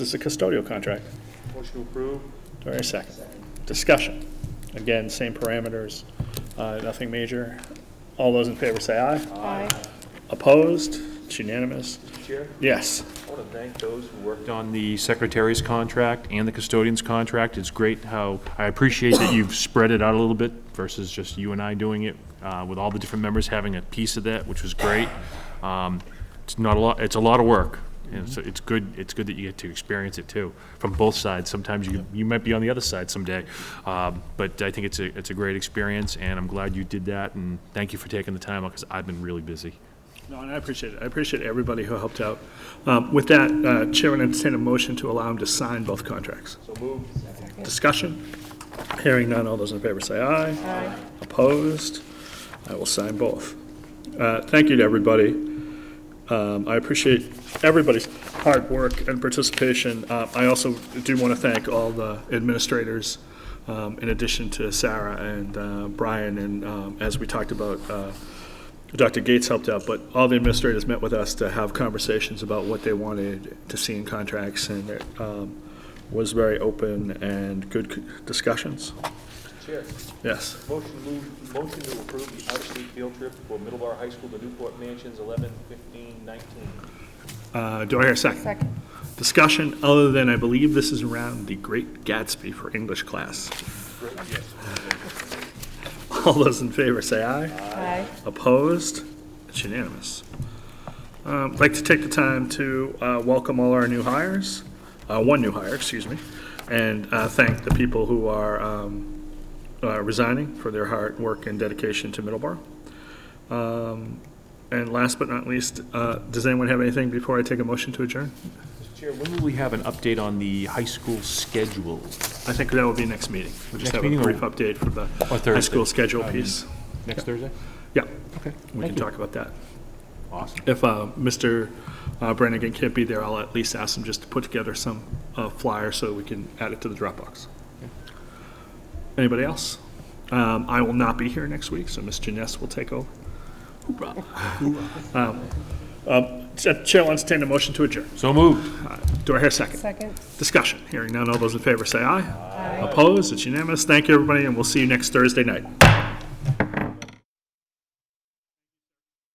This is a custodial contract. Motion to approve. Do I hear a second? Discussion. Again, same parameters, uh, nothing major. All those in favor say aye. Aye. Opposed? It's unanimous. Mr. Chair, Yes. I want to thank those who worked on the secretary's contract and the custodian's contract. It's great how, I appreciate that you've spread it out a little bit versus just you and I doing it, uh, with all the different members having a piece of that, which was great. Um, It's not a lot, it's a lot of work, and so it's good, it's good that you get to experience it too, from both sides. Sometimes you, you might be on the other side someday. Um, But I think it's a, it's a great experience, and I'm glad you did that, and thank you for taking the time, because I've been really busy. No, and I appreciate it. I appreciate everybody who helped out. Um, With that, uh, Chair would entertain a motion to allow him to sign both contracts. So moved. Discussion. Hearing none. All those in favor say aye. Aye. Opposed? I will sign both. Uh, Thank you to everybody. Um, I appreciate everybody's hard work and participation. Uh, I also do want to thank all the administrators, um, in addition to Sarah and uh, Brian, and um, as we talked about, uh, Dr. Gates helped out, but all the administrators met with us to have conversations about what they wanted to see in contracts, and it um, was very open and good c- discussions. Chair, Yes. motion move, motion to approve the out-of-state field trip for Middleborough High School to Newport Mansions, 11, 15, 19. Uh, Do I hear a second? Second. Discussion, other than I believe this is around the Great Gatsby for English class. All those in favor say aye. Aye. Opposed? It's unanimous. Um, I'd like to take the time to uh, welcome all our new hires, uh, one new hire, excuse me, and uh, thank the people who are um, uh, resigning for their hard work and dedication to Middleborough. Um, And last but not least, uh, does anyone have anything before I take a motion to adjourn? Mr. Chair, When will we have an update on the high school schedule? I think that will be next meeting. We'll just Next have a meeting or- brief update for the high Thursday. school schedule I mean- piece. Next Thursday? Yeah, Okay. we can talk about that. Awesome. If uh, Mr. uh, Brannigan can't be there, I'll at least ask him just to put together some uh, flyer so we can add it to the Dropbox. Anybody else? Um, I will not be here next week, so Ms. Janess will take over. Hoorah. Um, um, Chair Chair will entertain a motion to adjourn. So moved. Do I hear a second? Second. Discussion. Hearing none, all those in favor say aye. Aye. Opposed? It's unanimous. Thank you, everybody, and we'll see you next Thursday night.